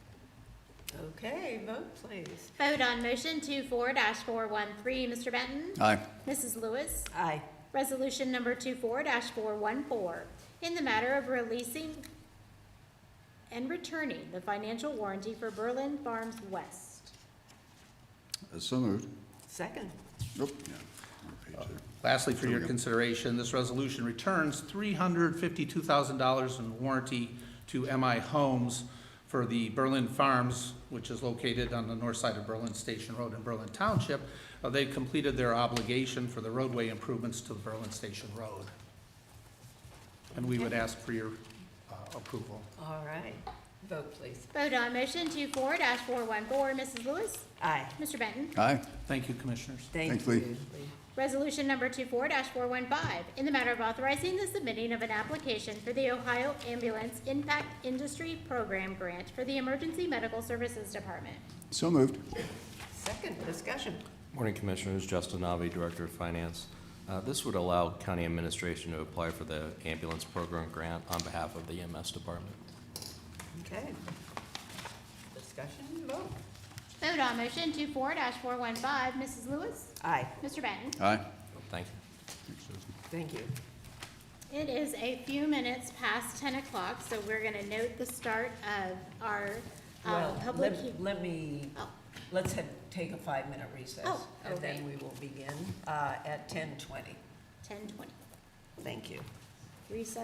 Okay, vote please. Vote on motion 24 four-one-three, Mr. Benton? Aye. Mrs. Lewis? Aye. Resolution number 24 four-one-four, in the matter of releasing and returning the financial warranty for Berlin Farms West. Uh, So moved. Second. Nope, yeah. on page there. Lastly, for There we your go. consideration, this resolution returns $352,000 in warranty to MI Homes for the Berlin Farms, which is located on the north side of Berlin Station Road in Berlin Township. Uh, They completed their obligation for the roadway improvements to Berlin Station Road. And we would ask for your uh, approval. All right, vote please. Vote on motion 24 four-one-four, Mrs. Lewis? Aye. Mr. Benton? Aye, Thank you, Commissioners. Thank Thanks, Lee. you. Lee. Resolution number 24 four-one-five, in the matter of authorizing the submitting of an application for the Ohio Ambulance Impact Industry Program Grant for the Emergency Medical Services Department. so moved. Second, discussion. Morning Commissioners, Justin Navi, Director of Finance. Uh, This would allow county administration to apply for the ambulance program grant on behalf of the EMS department. Okay. Discussion, vote. Vote on motion 24 four-one-five, Mrs. Lewis? Aye. Mr. Benton? Aye. Thank you. Thank you. It is a few minutes past ten o'clock, so we're gonna note the start of our, uh, Well, public. let, hea- let me, Oh, let's have, take a five-minute recess. Oh, And then we okay. will begin, uh, at ten twenty. ten twenty, Thank you. recess.